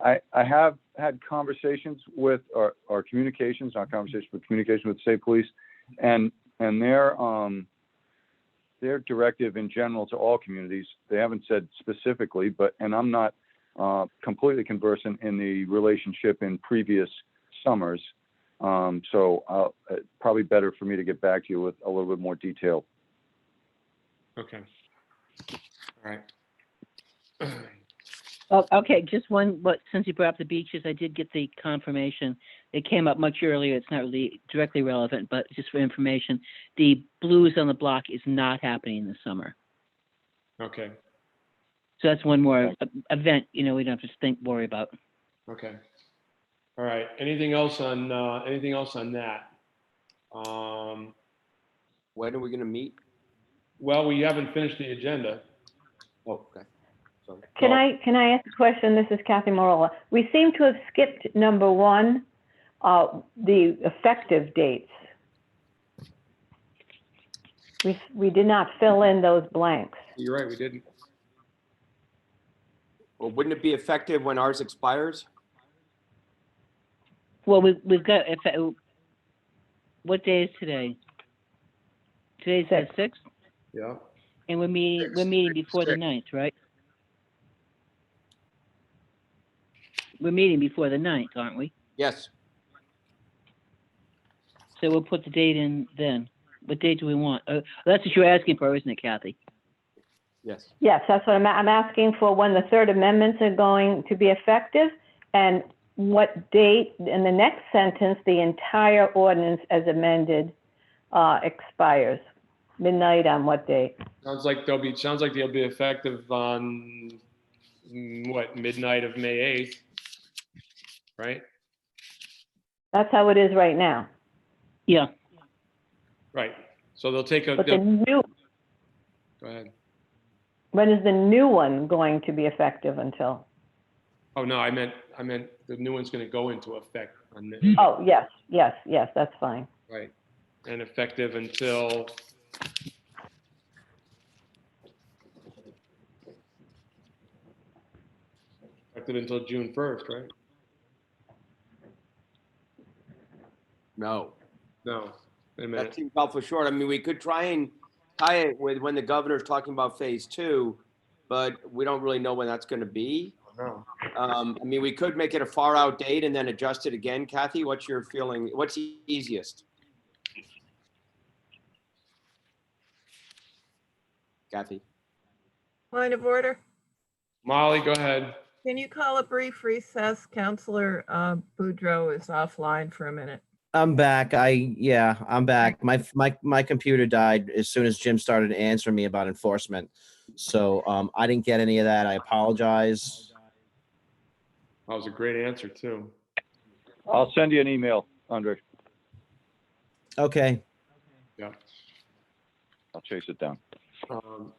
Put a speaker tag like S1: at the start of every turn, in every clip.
S1: I, I have had conversations with, or, or communications, not conversations, but communication with the state police. And, and their, um, their directive in general to all communities, they haven't said specifically, but, and I'm not, uh, completely conversant in the relationship in previous summers. Um, so, uh, it's probably better for me to get back to you with a little bit more detail.
S2: Okay. All right.
S3: Oh, okay, just one, but since you brought up the beaches, I did get the confirmation. It came up much earlier. It's not really directly relevant, but just for information, the Blues on the Block is not happening this summer.
S2: Okay,
S3: So that's one more uh, event, you know, we don't have to think, worry about.
S2: okay. All right, anything else on, uh, anything else on that? Um,
S4: When are we gonna meet?
S2: well, we haven't finished the agenda.
S4: Oh, okay. So,
S5: Can
S2: Oh.
S5: I, can I ask a question? This is Kathy Marola. We seem to have skipped number one, uh, the effective dates. We, we did not fill in those blanks.
S2: You're right, we didn't.
S4: well, wouldn't it be effective when ours expires?
S3: Well, we, we've got, if, uh, what day is today? Today's the
S5: Sixth.
S3: sixth,
S2: Yeah.
S3: and we're meeting, we're meeting before the ninth, right? We're meeting before the ninth, aren't we?
S4: Yes,
S3: So we'll put the date in then. What date do we want? Uh, that's what you're asking for, isn't it, Kathy?
S4: yes.
S5: Yes, that's what I'm, I'm asking for when the third amendments are going to be effective and what date, in the next sentence, the entire ordinance as amended, uh, expires. Midnight on what date?
S2: Sounds like they'll be, sounds like they'll be effective on, mm, what, midnight of May 8th? Right,
S5: That's how it is right now.
S3: Yeah,
S2: right. So they'll take a,
S5: But the
S2: they'll-
S5: new,
S2: go ahead.
S5: When is the new one going to be effective until?
S2: Oh, no, I meant, I meant the new one's going to go into effect on the,
S5: Oh, yes, yes, yes, that's fine.
S2: right. And effective until, effective until June 1st, right?
S4: No,
S2: No, wait a
S4: that
S2: minute.
S4: seems awful short. I mean, we could try and tie it with when the governor's talking about phase two, but we don't really know when that's gonna be.
S2: No.
S4: Um, I mean, we could make it a far out date and then adjust it again. Kathy, what's your feeling? What's the easiest? Kathy?
S6: Point of order.
S2: Molly, go ahead.
S6: Can you call a brief recess? Counselor uh, Boudreau is offline for a minute.
S7: I'm back. I yeah, I'm back. My my my computer died as soon as Jim started answering me about enforcement. So um I didn't get any of that. I apologize.
S2: That was a great answer, too.
S1: I'll send you an email, Andre.
S7: Okay.
S1: I'll chase it down.
S2: Um,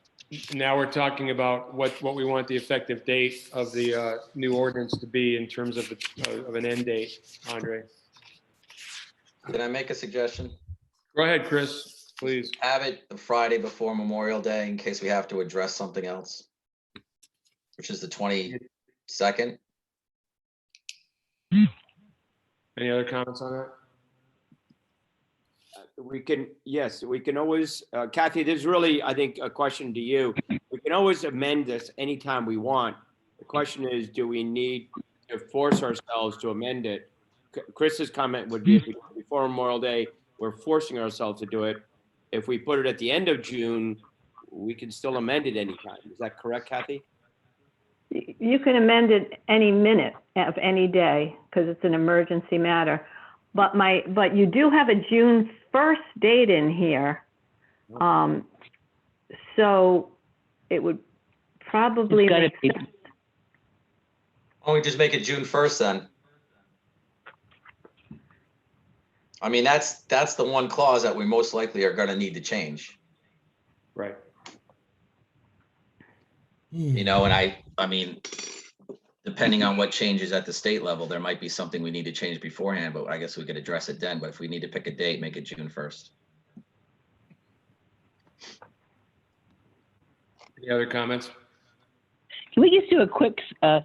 S2: Now we're talking about what, what we want the effective date of the uh, new ordinance to be in terms of, the- uh, of an end date, Andre.
S8: Can I make a suggestion?
S2: Go ahead, Chris, please.
S8: Have it the Friday before Memorial Day in case we have to address something else. Which is the twenty-second.
S2: Any other comments on that?
S4: We can, yes, we can always, uh, Kathy, this is really, I think, a question to you. We can always amend this anytime we want. The question is, do we need to force ourselves to amend it? C- Chris's comment would be if we- before Memorial Day, we're forcing ourselves to do it. If we put it at the end of June, we can still amend it anytime. Is that correct, Kathy?
S5: Y- You can amend it any minute of any day because it's an emergency matter. But my, but you do have a June 1st date in here.
S3: Mm-hmm.
S5: Um, So it would probably
S3: it's gotta
S5: make
S3: be,
S8: Why don't we just make it June first then? I mean, that's, that's the one clause that we most likely are gonna need to change,
S2: Right.
S8: you know, and I, I mean, depending on what changes at the state level, there might be something we need to change beforehand, but I guess we could address it then. But if we need to pick a date, make it June first.
S2: Any other comments?
S3: can we just do a quick, uh,